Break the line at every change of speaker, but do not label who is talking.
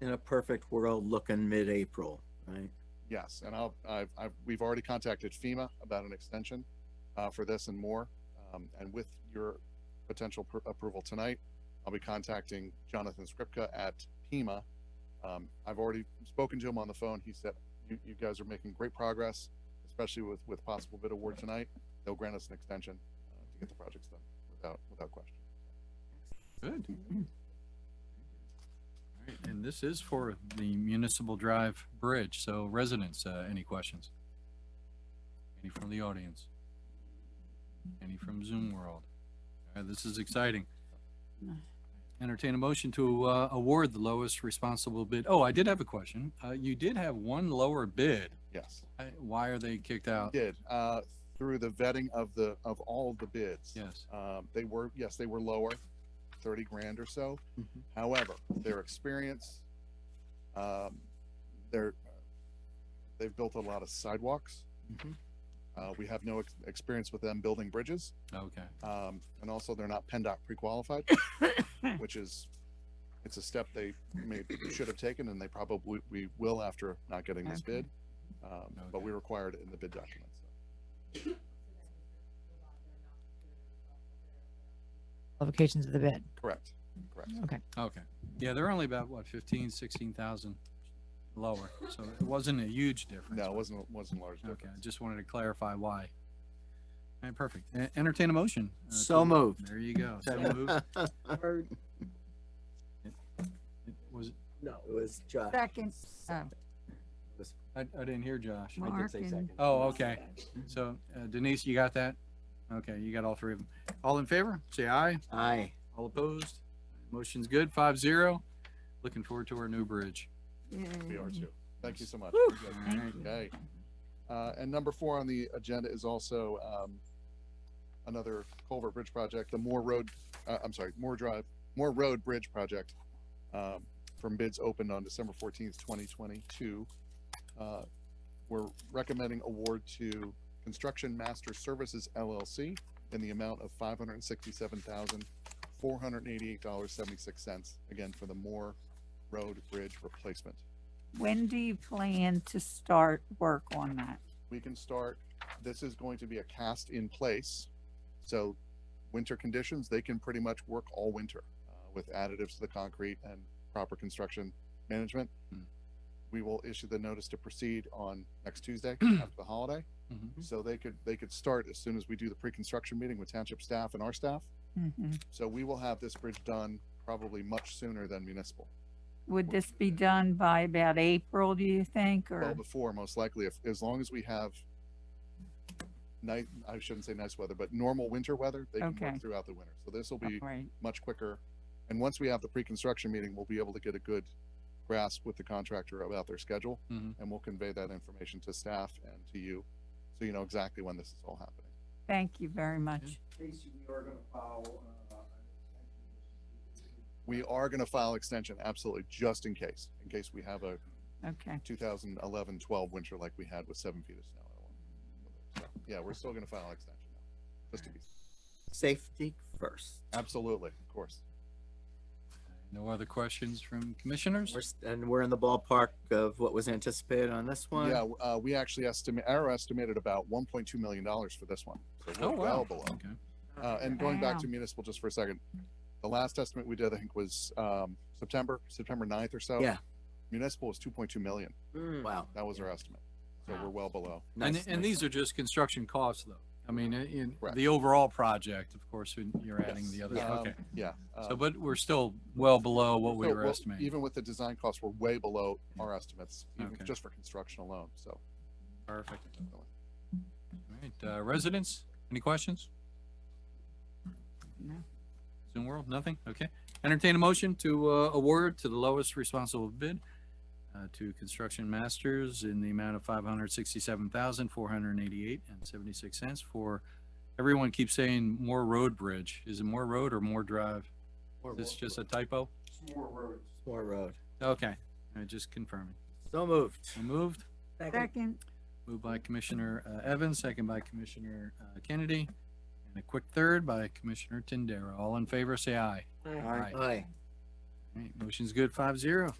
in a perfect world, looking mid-April, right?
Yes, and I'll, I've, I've, we've already contacted FEMA about an extension, uh, for this and more. Um, and with your potential pr- approval tonight, I'll be contacting Jonathan Skripka at Pima. Um, I've already spoken to him on the phone. He said, you, you guys are making great progress, especially with, with possible bid award tonight. They'll grant us an extension, uh, to get the projects done without, without question.
Good. Alright, And this is for the Municipal Drive Bridge, so residents, uh, any questions? Any from the audience? Any from Zoom world? Alright, this is exciting. Entertain a motion to, uh, award the lowest responsible bid. Oh, I did have a question. Uh, you did have one lower bid.
Yes.
I- Why are they kicked out?
Did, uh, through the vetting of the, of all the bids.
Yes,
Um, they were, yes, they were lower, thirty grand or so.
Mm-hmm.
Mhm.
However, their experience, um, they're, they've built a lot of sidewalks.
Mhm.
Uh, we have no ex- experience with them building bridges,
okay,
um, and also they're not PennDOT pre-qualified, which is, it's a step they may, should have taken and they probably, we will after not getting this
Okay.
bid. Um, but we required it in the bid document, so.
qualifications of the bid.
Correct, correct.
okay. Yeah, they're only about, what, fifteen, sixteen thousand lower, so it wasn't a huge difference.
No, it wasn't, it wasn't a large
Okay, I
difference.
just wanted to clarify why. All right, perfect. E- Entertain a motion. uh,
So
to-
moved.
There you go. So moved. Was,
No, it was Josh.
Second, uh,
I, I didn't hear Josh.
I did
Mark
say
and-
second.
Oh, okay. So uh, Denise, you got that? Okay, you got all three of them. All in favor, say aye.
Aye.
All opposed? Motion's good, five zero. Looking forward to our new bridge.
We are
yay.
too. Thank you so much.
Whew.
Good.
All right.
Okay. Uh, and number four on the agenda is also, um, another culvert bridge project, the Moore Road, uh, I'm sorry, Moore Drive, Moore Road Bridge Project, um, from bids opened on December fourteenth, twenty twenty-two. Uh, we're recommending award to Construction Master Services LLC in the amount of five hundred and sixty-seven thousand, four hundred and eighty-eight dollars, seventy-six cents, again, for the Moore Road Bridge replacement.
When do you plan to start work on that?
we can start, this is going to be a cast in place. So winter conditions, they can pretty much work all winter uh, with additives to the concrete and proper construction management.
Hmm.
We will issue the notice to proceed on next Tuesday after the holiday.
Mhm.
So they could, they could start as soon as we do the pre-construction meeting with township staff and our staff.
Mhm.
So we will have this bridge done probably much sooner than municipal.
Would this be done by about April, do you think,
Well,
or?
before, most likely, if, as long as we have nice, I shouldn't say nice weather, but normal winter weather, they can
Okay.
work throughout the winter. So this will
All
be
right.
much quicker. And once we have the pre-construction meeting, we'll be able to get a good grasp with the contractor about their schedule.
Mhm.
And we'll convey that information to staff and to you, so you know exactly when this is all happening.
Thank you very much.
Casey, we are gonna file, uh,
We are gonna file extension, absolutely, just in case, in case we have a
Okay,
2011, 12 winter like we had with seven feet of snow. at one- So, Yeah, we're still gonna file extension now, just to be,
Safety first.
Uh,
absolutely, of course.
No other questions from commissioners?
We're s- And we're in the ballpark of what was anticipated on this one?
Yeah, uh, we actually estimate, our estimated about 1.2 million dollars for this one. So
Oh,
we're well
wow.
below.
Okay.
Uh, and going back to
Wow.
municipal just for a second, the last estimate we did, I think, was, um, September, September 9th or so.
Yeah.
Municipal was 2.2 million.
Hmm. Wow.
That was our estimate. So we're well below.
And, and these are just construction costs though. I mean, in- in
Correct.
the overall project, of course, when you're adding
Yes.
the other,
Um,
okay.
Yeah.
So,
um,
but we're still well below what we
so,
were
well,
estimating.
Even with the design costs, we're way below our estimates, even
Okay.
just for construction alone, so.
Perfect. All right, uh, residents, any questions?
No.
Zoom world, nothing? Okay. Entertain a motion to, uh, award to the lowest responsible bid uh, to Construction Masters in the amount of five hundred sixty-seven thousand, four hundred and eighty-eight and seventy-six cents for, everyone keeps saying Moore Road Bridge. Is it Moore Road or Moore Drive? Is this just a typo?
Moore Road.
Moore Road.
Okay, I just confirming.
So moved.
So Moved?
second,
Moved by Commissioner uh, Evans, second by Commissioner uh, Kennedy, and a quick third by Commissioner Tindera. All in favor, say aye. Aye.
Aye.
All right, Motion's good, five zero.